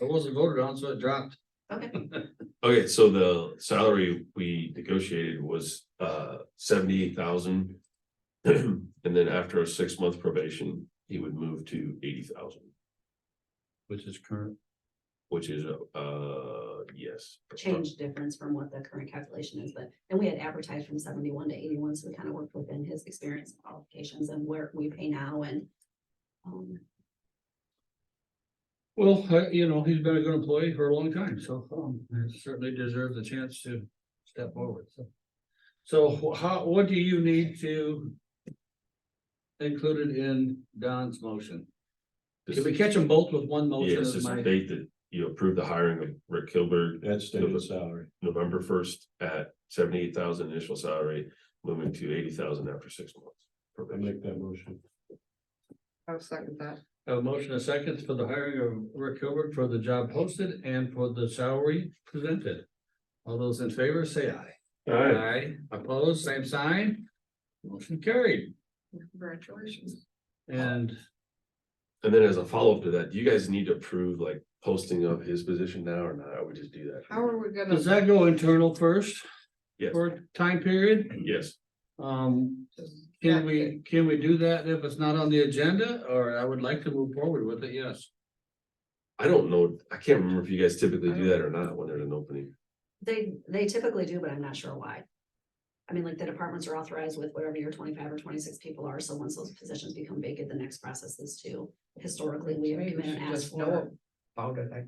It wasn't voted on, so it dropped. Okay, Okay, so the salary we negotiated was uh seventy-eight thousand. And then after a six-month probation, he would move to eighty thousand, Which is current. which is uh, yes. change difference from what the current calculation is, but, and we had advertised from seventy-one to eighty-one, so we kind of worked within his experience and qualifications and where we pay now and. Um, Well, uh, you know, he's been a good employee for a long time, so um, he certainly deserves a chance to step forward, so. So wh- how, what do you need to include it in Don's motion? Can we catch them both with one motion? Yes, is it's my- the date that you approve the hiring of Rick Kilberg, That's November- stated salary. November first at seventy-eight thousand initial salary, moving to eighty thousand after six months. I probation. make that motion. I'll second that. Have A motion and a second for the hiring of Rick Hilbert for the job posted and for the salary presented. All those in favor, say aye. Aye. Opposed, same sign. Motion carried. Congratulations. And And then as a follow-up to that, do you guys need to approve like posting of his position now or not? I would just do that. How are we does gonna, that go internal first? Yes. For a time period? Yes, Um, can we, can we do that if it's not on the agenda? Or I would like to move forward with it, yes. I don't know, I can't remember if you guys typically Oh. do that or not when there's an opening. they, they typically do, but I'm not sure why. I mean, like the departments are authorized with whatever your twenty-five or twenty-six people are, so once those positions become vacant, the next process is to, historically, we have Maybe come we in and should asked just for. know about it, I.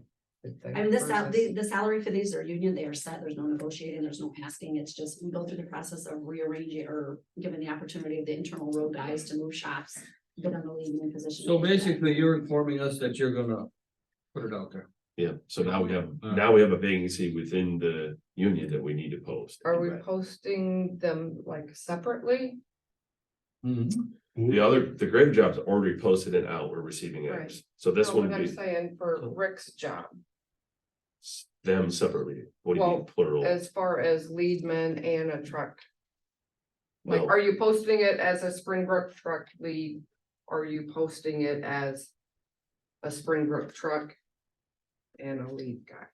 would think, I mean, the sal- versus- the, the salary for these are union, they are set, there's no negotiating, there's no asking, it's just, we go through the process of rearranging or given the opportunity of the internal road guys to move shops. Get on the leading position. So basically, you're informing us that you're gonna put it out there. Yeah, so now we have, now we have a vacancy within the union that we need to post. Are we posting them like separately? The other, the grave jobs are already posted and out, we're receiving Right. apps. So this No, one What would I'm be saying for Rick's job, them separately. What do you mean Well, plural? as far as leadman and a truck. Like, Well- are you posting it as a Springbrook truck lead? Are you posting it as a Springbrook truck? And a lead guy?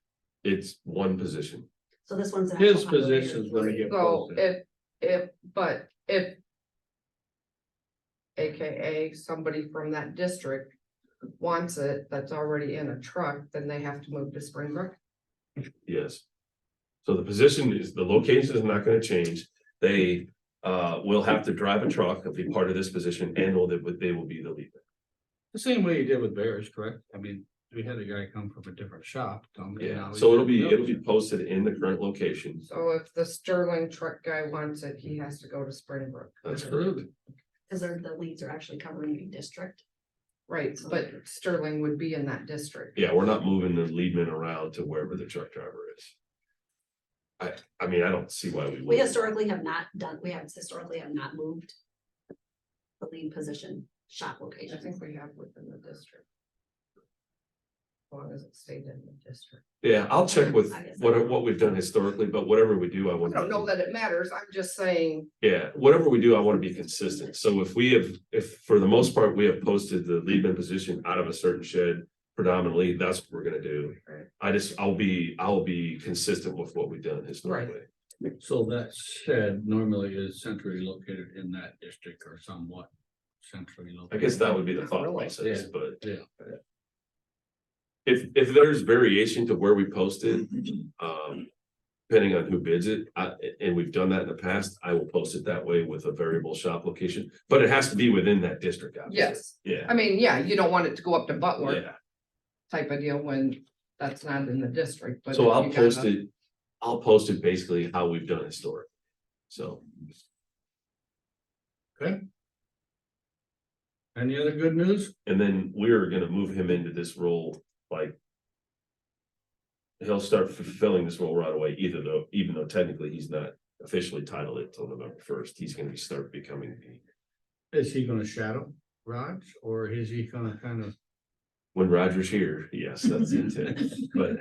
It's one position. So this one's. an His actual operator. position's gonna get So posted. if, if, but if. AKA somebody from that district wants it, that's already in a truck, then they have to move to Springbrook. Yes. So the position is, the location is not gonna change. They uh will have to drive a truck and be part of this position and will they, they will be the lead. The same way you did with Bears, correct? I mean, we had a guy come from a different shop. come, and now Yeah, he's so it'll be, doing it'll be another. posted in the current location. So if the Sterling truck guy wants it, he has to go to Springbrook. That's correct. Absolutely. Cause they're, the leads are actually covering the district. Right, but Sterling would be in that district. Yeah, we're not moving the lead men around to wherever the truck driver is. I, I mean, I don't see why we We would. historically have not done, we have historically have not moved. The lead position, shop I location. think we have within the district. As long as it stayed in the district. Yeah, I'll check with I guess I- what, what we've done historically, but whatever we do, I I want. don't know that it matters. I'm just saying. Yeah, whatever we do, I want to be consistent. So if we have, if for the most part, we have posted the lead man position out of a certain shed predominantly, that's what we're gonna do. Right. I just, I'll be, I'll be consistent with what we've done historically. So that said, normally is centrally located in that district or somewhat centrally I located. guess that would be the Not thought really. process, Yeah. but. Yeah. If, if there's variation to where we posted, Mm-hmm. um, depending on who bids it, I, and we've done that in the past, I will post it that way with a variable shop location. But it has to be within that district. obviously. Yes, Yeah, I mean, yeah, you don't want it to go up to Butler. yeah. type of deal when that's not in the district, but. So if I'll you got post a- it, I'll post it basically how we've done historic. So, Any other good news? and then we're gonna move him into this role, like. He'll start fulfilling this role right away, either though, even though technically he's not officially titled it till November first, he's gonna be- start becoming the. Is he gonna shadow Raj or is he gonna kind of? When Roger's here, yes, that's the intent, but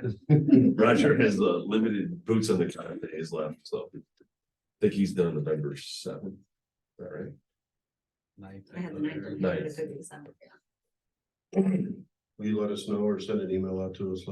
Roger has uh limited boots on the ground that he's left, so. I Think he's done November seventh, is that right? I had the ninth on here, but it could be the seventh, yeah. Will you let us know or send an email out to us